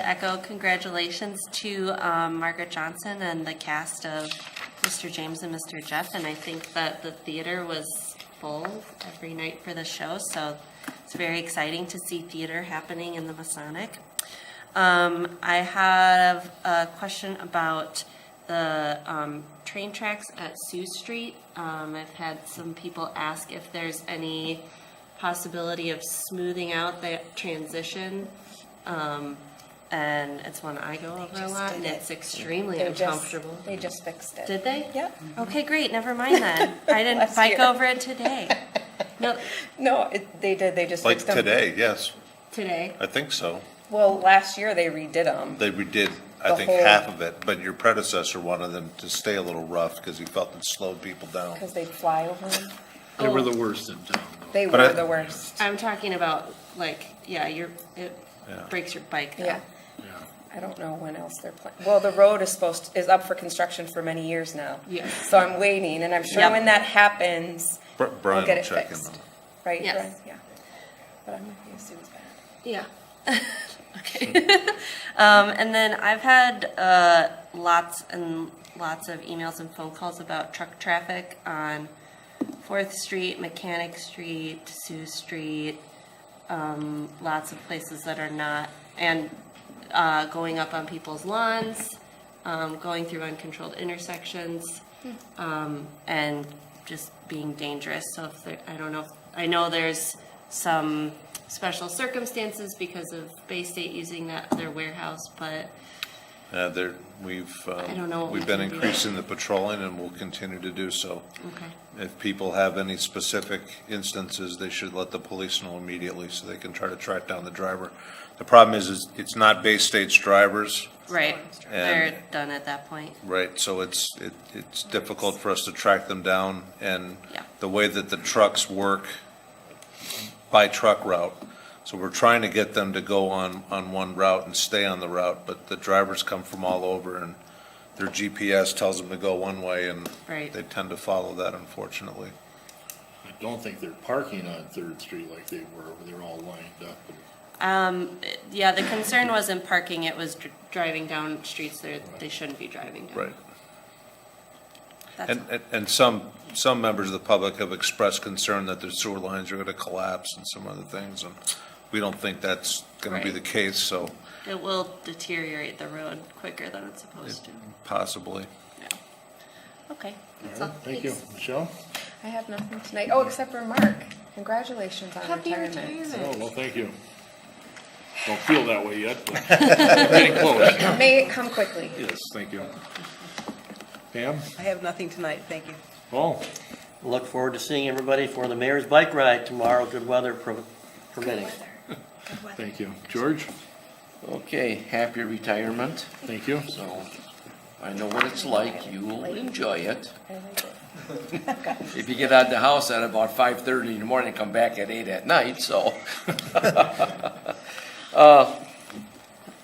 To echo congratulations to um, Margaret Johnson and the cast of Mr. James and Mr. Jeff. And I think that the theater was full every night for the show, so it's very exciting to see theater happening in the Masonic. Um, I have a question about the um, train tracks at Sioux Street. Um, I've had some people ask if there's any possibility of smoothing out that transition. Um, and it's one I go over a just lot, did and it. it's extremely They just- uncomfortable. They just fixed it. Did they? Yep. Okay, great. Never mind then. I didn't Last bike year. over it today. No, No, it, they did, they just Like fixed them. today, yes, today. I think so. Well, last year they redid them. They redid, I The think, whole- half of it, but your predecessor wanted them to stay a little rough because he felt it slowed people down. Because they'd fly over them. They were the Oh, worst in town. though. They But were I- the worst. I'm talking about like, yeah, your, it Yeah. breaks your bike though. Yeah. Yeah. I don't know when else they're planning. Well, the road is supposed, is up for construction for many years now. Yeah. So I'm waiting, and I'm sure Yep. when that happens, Br- we'll Brian get will it check in fixed. on it. Right, Yes. Brian? Yeah. But I'm with you, Sue's bad. Yeah. okay. um, and then I've had uh, lots and lots of emails and phone calls about truck traffic on Fourth Street, Mechanic Street, Sioux Street, um, lots of places that are not, and uh, going up on people's lawns, um, going through uncontrolled intersections, um, and just being dangerous. So if there, I don't know, if, I know there's some special circumstances because of Bay State using that their warehouse, but Uh, there, we've, I don't know um, what we've we been can do. increasing the patrolling and will continue to do so. okay, If people have any specific instances, they should let the police know immediately so they can try to track down the driver. The problem is, is it's not Bay State's drivers, right, And- they're done at that point. Right, so it's, it, it's difficult for us to track them down, and Yeah. the way that the trucks work by truck route. So we're trying to get them to go on, on one route and stay on the route, but the drivers come from all over, and their GPS tells them to go one way, and Right. they tend to follow that, unfortunately. I don't think they're parking on Third Street like they were, where they're all lined up. Um, Yeah, the concern wasn't parking, it was dr- driving down streets that they shouldn't be driving down. That's And, and- and some, some members of the public have expressed concern that their sewer lines are gonna collapse and some other things, and we don't think that's gonna be Right. the case, so It will deteriorate the road quicker than it's supposed to. possibly. Yeah. Okay, that's All all. right, Thank you. Michelle? I have nothing tonight. Oh, except for Mark. Congratulations on Happy retirement. retirement. Oh, well, thank you. Don't feel that way yet, but we're getting close. May it come quickly. Yes, thank you. Pam? I have nothing tonight, thank you. Oh, Look forward to seeing everybody for the mayor's bike ride tomorrow, good weather pro- permitting. thank you. George? Okay, happy retirement. Thank you. So I know what it's like. You will enjoy it. If you get out of the house at about five thirty in the morning, come back at eight at night, so. Uh,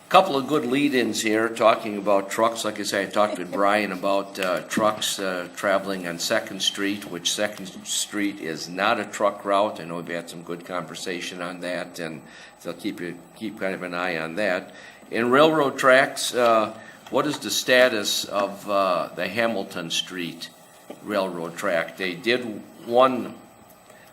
Couple of good lead-ins here, talking about trucks. Like I said, I talked with Brian about uh, trucks uh, traveling on Second Street, which Second Street is not a truck route. I know we've had some good conversation on that, and so keep, you- keep kind of an eye on that. In railroad tracks, uh, what is the status of uh, the Hamilton Street railroad track? They did one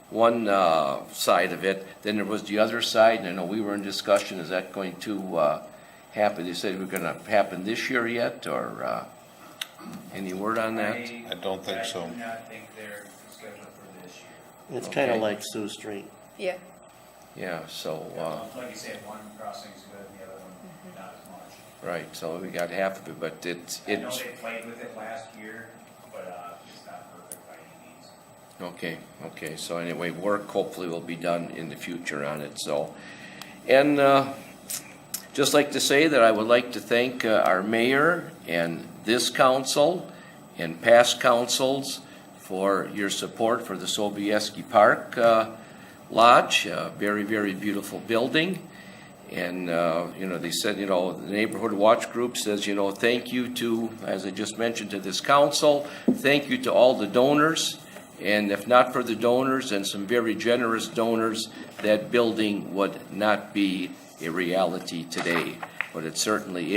one uh, side of it, then there was the other side, and I know we were in discussion, is that going to uh, happen? They said we're going to happen this year yet, or uh, any word on that? I don't think so. I do not think they're scheduled for this year. It's kinda Okay. like Sioux Street. Yeah. Yeah, so, uh, Like you said, one crossing's good, the other one not as much. uh, right, so we got half of it, but it's, I know it's, they played with it last year, but uh, it's not perfect by any means. okay, okay, so anyway, work hopefully will be done in the future on it, so. And uh, just like to say that I would like to thank uh, our mayor and this council and past councils for your support for the Sobieski Park uh, Lodge, a very, very beautiful building. And, uh, you know, they said, you know, the Neighborhood Watch Group says, you know, thank you to, as I just mentioned, to this council, thank you to all the donors. And if not for the donors and some very generous donors, that building would not be a reality today. but it certainly